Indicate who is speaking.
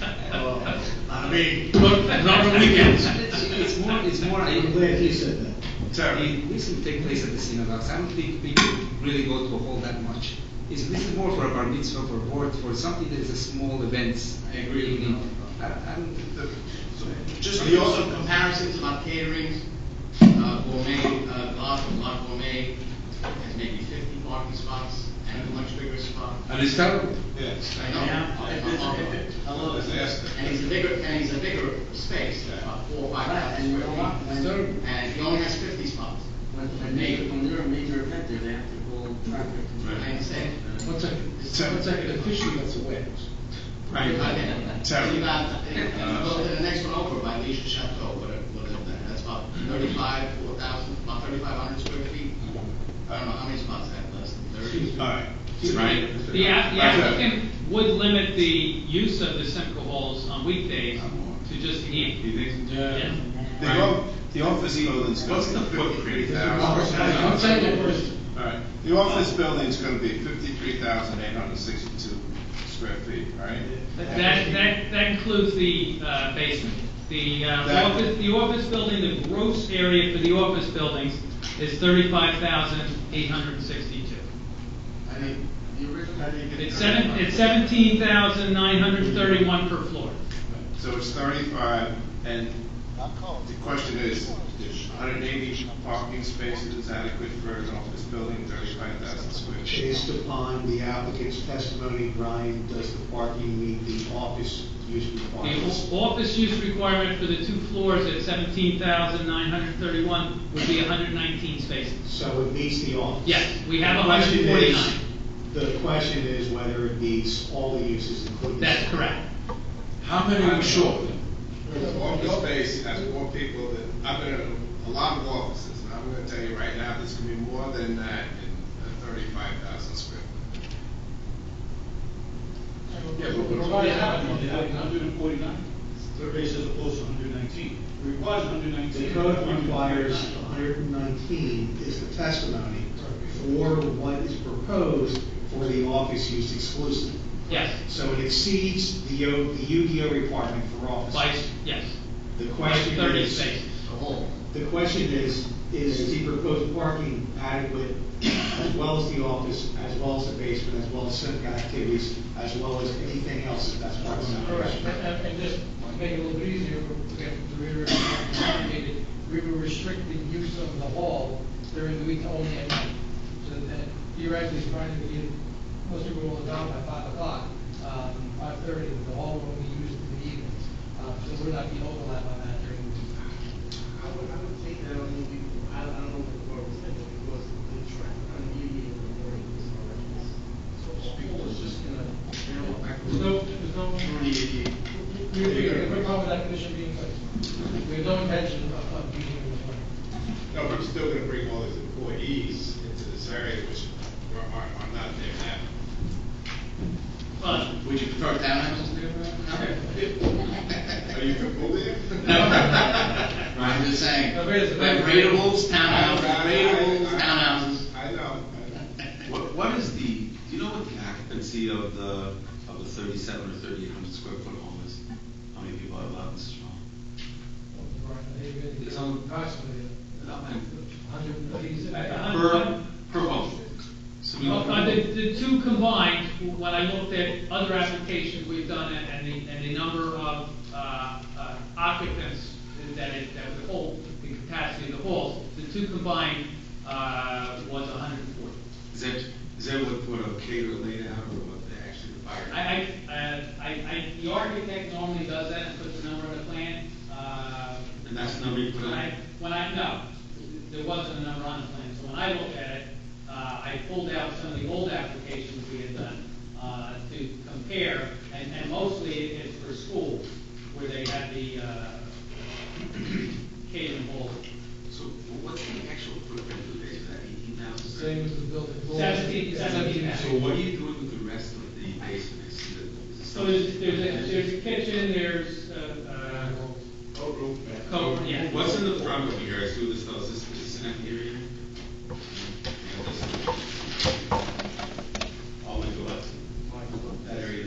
Speaker 1: I mean, look, not on weekends.
Speaker 2: It's, it's more, it's more,
Speaker 3: I'm
Speaker 2: I,
Speaker 3: glad he said that.
Speaker 1: Sorry.
Speaker 2: listen, take place at the synagogues, I don't think people really go to a hall that much. It's, this is more for a bar mitzvah, for a board, for something that is a small event.
Speaker 4: I agree with you.
Speaker 2: I, I don't,
Speaker 4: Just the also comparisons about caterings, uh, gourmet, uh, lot, lot gourmet, has maybe fifty parking spots and a much bigger spot.
Speaker 1: And it's terrible.
Speaker 5: Yes.
Speaker 4: I know.
Speaker 5: I love it.
Speaker 4: And he's a bigger, and he's a bigger space, uh, about four, or five thousand square feet.
Speaker 1: It's terrible.
Speaker 4: And he only has fifty spots.
Speaker 6: When they, when they're a major event, there, they have to call traffic.
Speaker 4: I understand.
Speaker 1: One second, one second, the fishing that's a warehouse.
Speaker 4: Right. Okay.
Speaker 5: Terry.
Speaker 4: You got, and, and go to the next one over by Leisha Chateau, whatever, whatever that, that's about thirty-five, four thousand, about thirty-five hundred square feet. I don't know how many spots that, less than thirty?
Speaker 5: All right. Right?
Speaker 7: The app- the applicant would limit the use of the Semco halls on weekdays to just eat.
Speaker 5: You think?
Speaker 7: Yeah.
Speaker 5: The off, the office building's. gonna
Speaker 4: What's the
Speaker 5: be
Speaker 4: footprint?
Speaker 5: 53,000.
Speaker 1: One second first.
Speaker 5: All right, the office building's gonna be fifty-three thousand eight hundred sixty-two square feet, right?
Speaker 7: That, that, that includes the uh, basement. The
Speaker 5: That-
Speaker 7: uh, office, the office building, the gross area for the office buildings is thirty-five thousand eight hundred and sixty-two.
Speaker 4: I mean, the original.
Speaker 7: It's seven, it's seventeen thousand nine hundred and thirty-one per floor.
Speaker 5: So it's thirty-five, and the question is, is hundred eighty parking spaces adequate for an office building, thirty-five thousand square feet?
Speaker 3: Based upon the applicant's testimony, Brian, does the parking meet the office use requirements?
Speaker 7: The o- office use requirement for the two floors at seventeen thousand nine hundred and thirty-one would be hundred and nineteen spaces.
Speaker 3: So it meets the office?
Speaker 7: Yes, we have
Speaker 3: The question is-
Speaker 7: 149.
Speaker 3: The question is whether it meets all the uses including.
Speaker 7: That's correct.
Speaker 1: How many are short?
Speaker 5: Office space has more people than, I've been in a lot of offices, and I'm gonna tell you right now, there's gonna be more than that in uh, thirty-five thousand square. foot.
Speaker 8: Yeah, but what already happened, they had hundred and forty-nine, third base as opposed to hundred and nineteen. Requires hundred and nineteen.
Speaker 3: The code requires hundred and nineteen is the testimony for what is proposed for the office use exclusive.
Speaker 7: Yes,
Speaker 3: So it exceeds the O, the UDO requirement for office.
Speaker 7: by, yes,
Speaker 3: The
Speaker 7: by
Speaker 3: question
Speaker 7: thirty
Speaker 3: is-
Speaker 7: spaces.
Speaker 4: The whole.
Speaker 3: The question is, is the proposed parking adequate as well as the office, as well as the basement, as well as civic activities, as well as anything else that's part of the
Speaker 9: Correct, and,
Speaker 3: operation?
Speaker 9: and- and just to make it a little bit easier, we have to reiterate, what we indicated, we were restricting use of the hall during the week only at night. So that theoretically, Friday, we get, most people will down by five o'clock, um, five thirty, the hall will be used in the evenings. Uh, so we're not being overlap on that during the week.
Speaker 6: I would, I would say that, I mean, we- I, I don't know what the board was thinking, because the traffic on the union in the morning is already. So people is just gonna, narrow back.
Speaker 9: There's no, there's no, we, we, we're comfortable with that condition being placed. We have no intention of, of using it this morning.
Speaker 5: No, but I'm still gonna bring all these employees into this area, which are, are are not there now.
Speaker 7: But
Speaker 4: Would you prefer townhouses there, Brian?
Speaker 5: Are you comfortable there?
Speaker 4: I'm just saying,
Speaker 9: No, but it's-
Speaker 4: like ratables, townhouses,
Speaker 5: I- I-
Speaker 4: ratables,
Speaker 5: I-
Speaker 4: townhouses.
Speaker 5: I know.
Speaker 10: What, what is the, do you know what the occupancy of the, of the thirty-seven or thirty-eight hundred square foot home is? How many people are allowed in this home?
Speaker 9: It's
Speaker 10: It's on-
Speaker 9: approximately a hundred and thirty.
Speaker 7: I-
Speaker 10: Per, per home? So we-
Speaker 7: Well, uh, the, the two combined, when I looked at other applications we've done and- and the, and the number of, uh, uh, occupants that it, that would hold, the capacity of the halls, the two combined, uh, was hundred and forty.
Speaker 10: Is that, is that what, what a caterer laid out or what they actually required?
Speaker 7: I, I, uh, I, I, the architect normally does that and puts the number on the plan, uh.
Speaker 10: And that's the number you put on?
Speaker 7: When I, when I, no, there wasn't a number on the plan, so when I looked at it, uh, I pulled out some of the old applications we had done, uh, to compare, and, and mostly it's for school, where they had the, uh, catering hall.
Speaker 10: So what's the actual footprint of the base, is that eighteen thousand?
Speaker 9: Same as the building.
Speaker 7: Seventeen- seventeen.
Speaker 10: So what are you doing with the rest of the basement? Is it- is it
Speaker 7: So there's, there's a, there's a kitchen, there's, uh, uh,
Speaker 5: Courtroom.
Speaker 7: coat, yeah.
Speaker 10: What's in the front of here, I assume this house is, is an area?